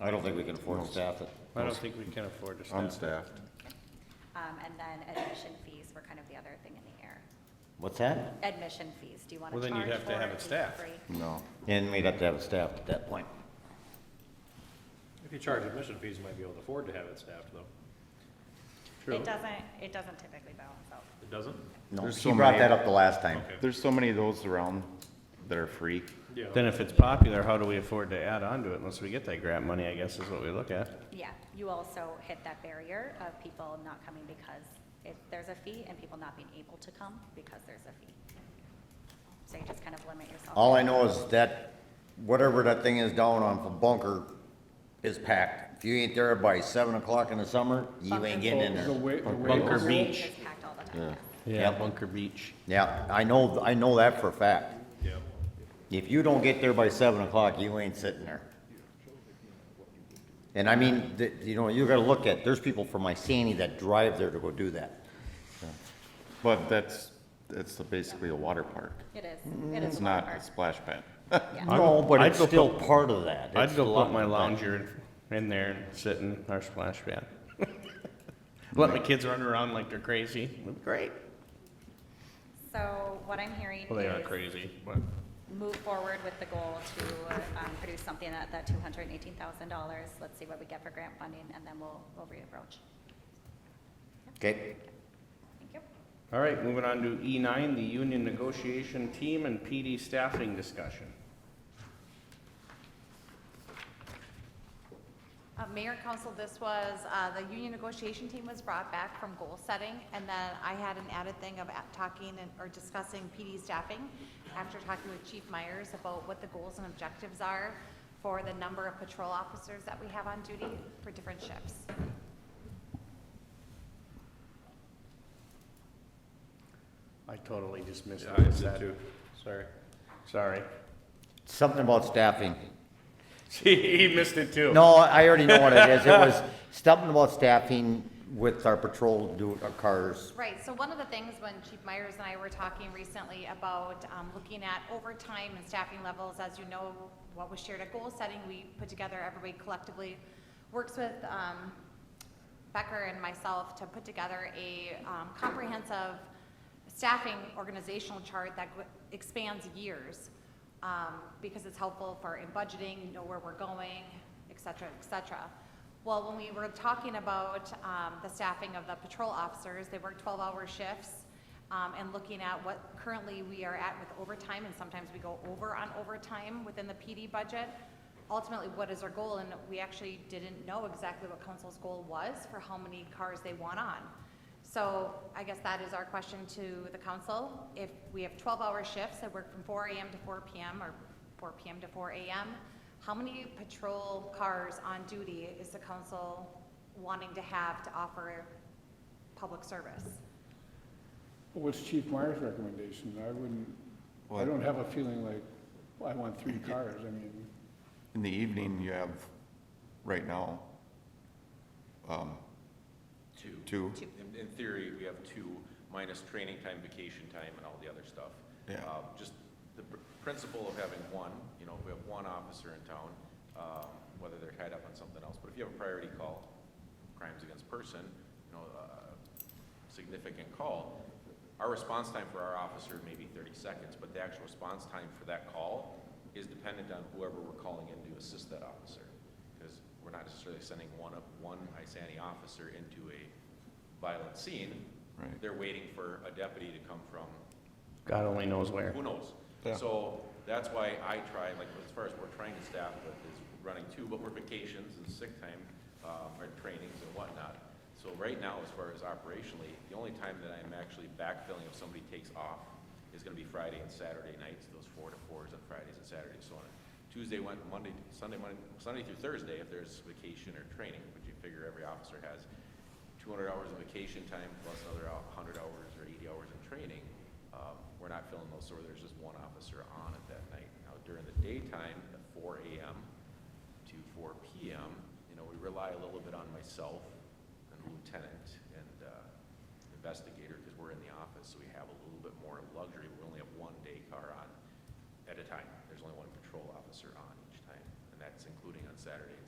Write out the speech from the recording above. I don't think we can afford to staff it. I don't think we can afford to staff. it. Unstaffed. Um, and then admission fees were kind of the other thing in the air. What's that? Admission fees, do you want to Well, charge for then it? you'd have to have it Is staffed. free? No. And we'd have to have it staffed at that point. If you charge admission fees, you might be able to afford to have it staffed, though. True. It doesn't, it doesn't typically balance out. It doesn't? No, There's she so brought many- that up the last time. Okay. There's so many of those around that are free. Yeah. Then if it's popular, how do we afford to add on to it unless we get that grant money, I guess, is what we look at. Yeah, you also hit that barrier of people not coming because it, there's a fee and people not being able to come because there's a fee. So you just kind of limit yourself. All I know is that whatever that thing is down on from Bunker is packed. If you ain't there by seven o'clock in the summer, you ain't getting in The there. wa- the Bunker waivers- Beach. It's packed all the time. Yeah, Yep. Bunker Beach. Yeah, I know, I know that for a fact. Yeah. If you don't get there by seven o'clock, you ain't sitting there. And I mean, th- you know, you gotta look at, there's people from Iceni that drive there to go do that. But that's, that's the- basically a water park. It is, it is. It's a water not a park. splash pad. No, but I'd it's go put- still part of that. I'd It's go still- put my lounger in, in there and sit in our splash pad. Let my kids run around like they're crazy. Great. So what I'm hearing Well, they are is crazy, but. move forward with the goal to, um, produce something at that two hundred and eighteen thousand dollars. Let's see what we get for grant funding and then we'll, we'll reapproach. Okay, Thank you. All right, moving on to E nine, the union negotiation team and PD staffing discussion. Uh, Mayor and Council, this was, uh, the union negotiation team was brought back from goal setting, and then I had an added thing of at- talking and, or discussing PD staffing after talking with Chief Myers about what the goals and objectives are for the number of patrol officers that we have on duty for different shifts. I totally just missed Yeah, what I you did said. too. Sorry. Sorry. something about staffing. He missed it too. No, I already know what it is. It was something about staffing with our patrol do, our cars. Right, so one of the things when Chief Myers and I were talking recently about um, looking at overtime and staffing levels, as you know, what was shared at goal setting, we put together, everybody collectively works with um, Becker and myself to put together a um, comprehensive staffing organizational chart that gr- expands years, um, because it's helpful for in budgeting, you know where we're going, et cetera, et cetera. Well, when we were talking about um, the staffing of the patrol officers, they work 12-hour shifts, um, and looking at what currently we are at with overtime, and sometimes we go over on overtime within the PD budget. Ultimately, what is our goal? And we actually didn't know exactly what council's goal was for how many cars they want on. So I guess that is our question to the council. If we have 12-hour shifts that work from 4 AM to 4 PM or 4 PM to 4 AM, how many patrol cars on duty is the council wanting to have to offer public service? What's Chief Myers' recommendation? I wouldn't, I Well- don't have a feeling like, well, I want three cars, I mean, In the evening, you have, right now, um, Two. two. In, in theory, we have two, minus training time, vacation time, and all the other stuff. Yeah. Um, Just the pr- principle of having one, you know, if we have one officer in town, um, whether they're tied up on something else, but if you have a priority call, crimes against person, you know, a significant call, our response time for our officer may be thirty seconds, but the actual response time for that call is dependent on whoever we're calling in to assist that officer. Because we're not necessarily sending one, up- one ISANI officer into a violent scene. Right. They're waiting for a deputy to come from God only knows where. who knows? Yeah. So that's why I try, like, as far as we're trying to staff with is running two, but we're vacations and sick time, um, or trainings and whatnot. So right now, as far as operationally, the only time that I'm actually backfilling if somebody takes off is gonna be Friday and Saturday nights, those four to fours on Fridays and Saturdays, so on. Tuesday, Wed- Monday, Sunday, Monday, Sunday through Thursday, if there's vacation or training, which you figure every officer has, two hundred hours of vacation time plus another hundred hours or eighty hours in training, um, we're not filling those, so there's just one officer on at that night. Now, during the daytime, at four AM to four PM, you know, we rely a little bit on myself and lieutenant and, uh, investigator, because we're in the office, so we have a little bit more luxury. We only have one day car on at a time. There's only one patrol officer on each time, and that's including on Saturday and